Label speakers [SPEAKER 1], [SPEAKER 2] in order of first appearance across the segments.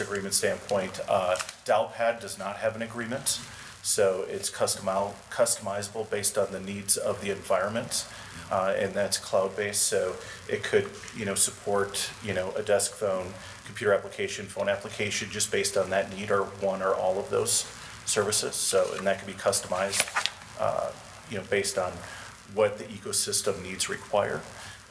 [SPEAKER 1] agreement standpoint, uh, Dalpad does not have an agreement, so it's customizable, customizable based on the needs of the environment, uh, and that's cloud-based, so it could, you know, support, you know, a desk phone, computer application, phone application, just based on that need, or one or all of those services, so, and that can be customized, uh, you know, based on what the ecosystem needs require.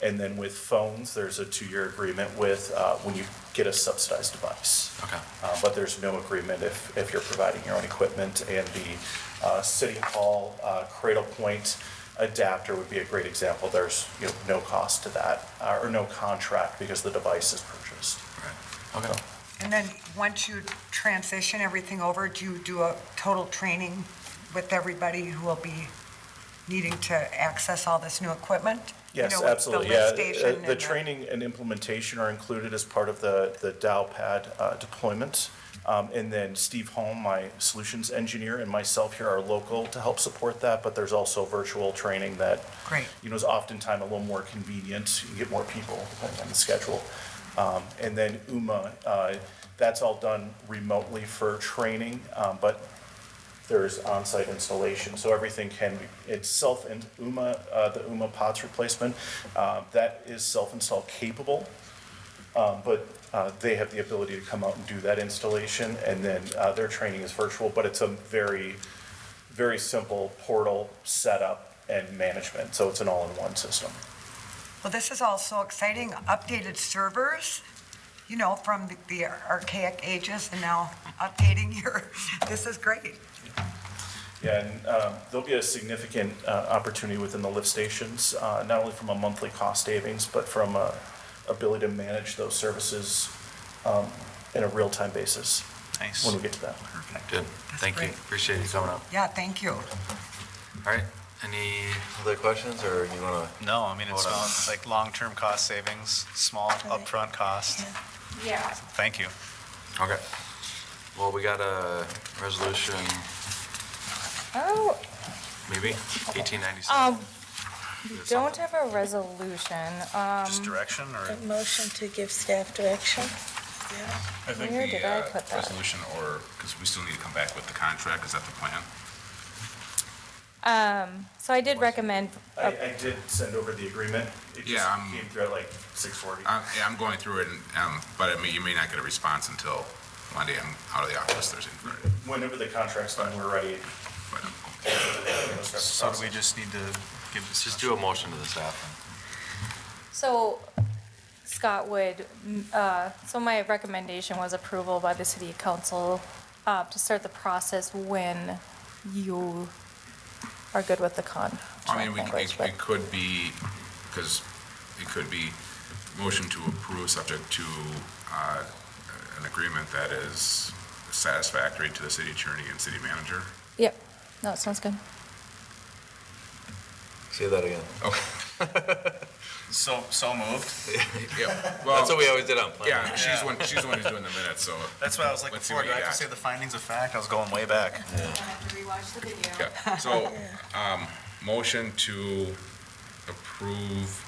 [SPEAKER 1] And then with phones, there's a two-year agreement with, uh, when you get a subsidized device.
[SPEAKER 2] Okay.
[SPEAKER 1] Uh, But there's no agreement if, if you're providing your own equipment. And the uh, City Hall uh, Cradle Point adapter would be a great example. There's, you know, no cost to that, uh, or no contract because the device is purchased.
[SPEAKER 2] Okay.
[SPEAKER 3] And then, once you transition everything over, do you do a total training with everybody who will be needing to access all this new equipment? You
[SPEAKER 1] Yes,
[SPEAKER 3] know, with the
[SPEAKER 1] absolutely,
[SPEAKER 3] lift
[SPEAKER 1] yeah.
[SPEAKER 3] station
[SPEAKER 1] Uh,
[SPEAKER 3] and
[SPEAKER 1] The training and implementation are included as part of the, the Dow pad uh, deployment. Um, And then Steve Holm, my solutions engineer, and myself here are local to help support that, but there's also virtual training that,
[SPEAKER 3] Great.
[SPEAKER 1] you know, is oftentimes a little more convenient, you get more people depending on the schedule. Um, And then UMA, uh, that's all done remotely for training, um, but there's on-site installation, so everything can be, it's self, and UMA, uh, the UMA POTS replacement, uh, that is self-install capable, um, but uh, they have the ability to come out and do that installation, and then uh, their training is virtual, but it's a very, very simple portal setup and management, so it's an all-in-one system.
[SPEAKER 3] Well, this is all so exciting, updated servers, you know, from the- the archaic ages, and now updating your, this is great.
[SPEAKER 1] Yeah, and um, there'll be a significant uh, opportunity within the lift stations, uh, not only from a monthly cost savings, but from uh, ability to manage those services um, in a real-time basis
[SPEAKER 2] Nice.
[SPEAKER 1] when we get to that.
[SPEAKER 2] Good. Thank you.
[SPEAKER 3] great.
[SPEAKER 2] Appreciate you coming up.
[SPEAKER 3] Yeah, thank you.
[SPEAKER 2] All right. Any other questions or you want to?
[SPEAKER 4] No, I mean, it's
[SPEAKER 2] Hold on.
[SPEAKER 4] not- like long-term cost savings, small upfront cost.
[SPEAKER 5] Yeah.
[SPEAKER 4] Thank you.
[SPEAKER 2] Okay. Well, we got a resolution,
[SPEAKER 5] Oh,
[SPEAKER 2] maybe 1897.
[SPEAKER 5] um,
[SPEAKER 2] We have
[SPEAKER 5] don't
[SPEAKER 2] something.
[SPEAKER 5] have a resolution. Um,
[SPEAKER 4] Just direction or?
[SPEAKER 6] A motion to give staff direction?
[SPEAKER 7] I think
[SPEAKER 5] Where
[SPEAKER 7] the,
[SPEAKER 5] did I
[SPEAKER 7] uh,
[SPEAKER 5] put that?
[SPEAKER 7] Resolution or, because we still need to come back with the contract, is that the plan?
[SPEAKER 5] um, so I did recommend,
[SPEAKER 1] I, I did send over the agreement. It just
[SPEAKER 7] Yeah, I'm-
[SPEAKER 1] came through at like 6:40.
[SPEAKER 7] I'm, Uh, yeah, I'm going through it, and, um, but I mean, you may not get a response until Monday, I'm out of the office Thursday and Friday.
[SPEAKER 1] Whenever the contract's done, we're ready.
[SPEAKER 7] But, um,
[SPEAKER 4] So do we just need to give this?
[SPEAKER 2] Just do a motion to the staff.
[SPEAKER 5] so Scott would, mm, uh, so my recommendation was approval by the city council, uh, to start the process when you are good with the con.
[SPEAKER 7] I mean, we,
[SPEAKER 5] language,
[SPEAKER 7] it
[SPEAKER 5] but-
[SPEAKER 7] it could be, because it could be motion to approve subject to, uh, an agreement that is satisfactory to the city attorney and city manager.
[SPEAKER 5] Yep, no, it sounds good.
[SPEAKER 2] Say that again.
[SPEAKER 4] So, so moved.
[SPEAKER 7] Yeah,
[SPEAKER 2] That's what
[SPEAKER 7] well,
[SPEAKER 2] we always did on planning.
[SPEAKER 7] yeah, she's one, she's the one who's doing the minutes, so.
[SPEAKER 4] That's what I was like
[SPEAKER 7] Let's see
[SPEAKER 4] before.
[SPEAKER 7] what
[SPEAKER 4] Do I
[SPEAKER 7] you
[SPEAKER 4] have to
[SPEAKER 7] got.
[SPEAKER 4] say the findings of fact? I was going way back.
[SPEAKER 7] Yeah, so, um, motion to approve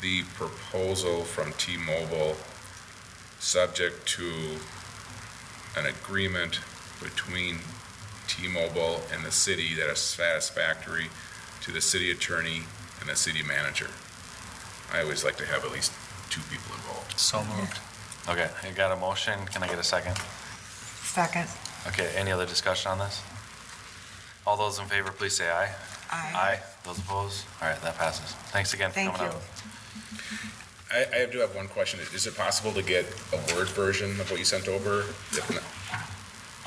[SPEAKER 7] the proposal from T-Mobile, subject to an agreement between T-Mobile and the city that is satisfactory to the city attorney and the city manager. I always like to have at least two people involved.
[SPEAKER 4] So moved.
[SPEAKER 2] Okay, I got a motion. Can I get a second?
[SPEAKER 3] Second.
[SPEAKER 2] Okay, any other discussion on this? All those in favor, please say aye.
[SPEAKER 3] Aye.
[SPEAKER 2] Those opposed? All right, that passes. Thanks again for
[SPEAKER 3] Thank
[SPEAKER 2] coming
[SPEAKER 3] you.
[SPEAKER 2] up.
[SPEAKER 7] I, I do have one question. Is it possible to get a Word version of what you sent over? If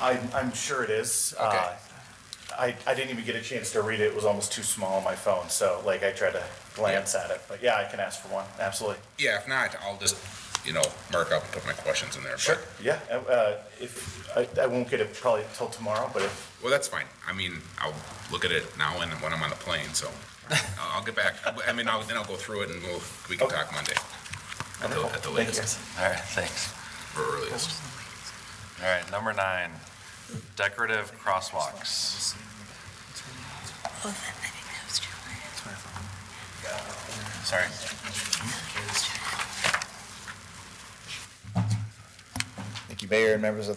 [SPEAKER 7] not,
[SPEAKER 1] I'm, I'm sure it is.
[SPEAKER 7] Okay.
[SPEAKER 1] Uh, I, I didn't even get a chance to read it. It was almost too small on my phone, so like I tried to glance at it. But yeah, I can ask for one, absolutely.
[SPEAKER 7] Yeah, if not, I'll just, you know, mark up and put my questions in there. but-
[SPEAKER 1] Yeah, uh, uh, if, I, I won't get it probably till tomorrow, but if
[SPEAKER 7] Well, that's fine. I mean, I'll look at it now and when I'm on the plane, so I'll I'll get back. I mean, I'll, then I'll go through it and we'll, we can talk Monday. At the, at
[SPEAKER 1] Thank
[SPEAKER 7] the
[SPEAKER 1] you.
[SPEAKER 7] latest,
[SPEAKER 2] All right, thanks.
[SPEAKER 7] or earliest.
[SPEAKER 2] All right, number nine, decorative crosswalks.
[SPEAKER 6] Oh, I think that was July.
[SPEAKER 2] Sorry.
[SPEAKER 8] Thank Mayor and members of the